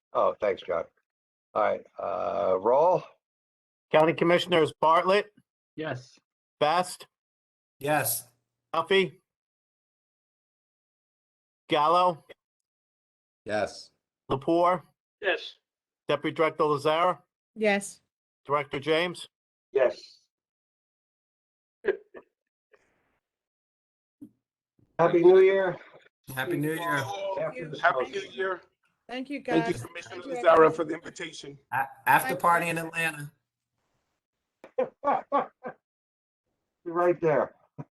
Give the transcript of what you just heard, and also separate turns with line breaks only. Oh, thanks, John. All right, uh, roll.
County Commissioners Bartlett,
Yes.
Best,
Yes.
Duffy, Gallo,
Yes.
Lapore,
Yes.
Deputy Director Lazara,
yes,
Director James.
Yes.
Happy New Year.
Happy New Year.
After the
Happy
snow.
New Year.
thank you
Thank you,
guys.
Commissioner
Thank you,
Lazara, for the invitation.
A- After party in Atlanta.
Right there.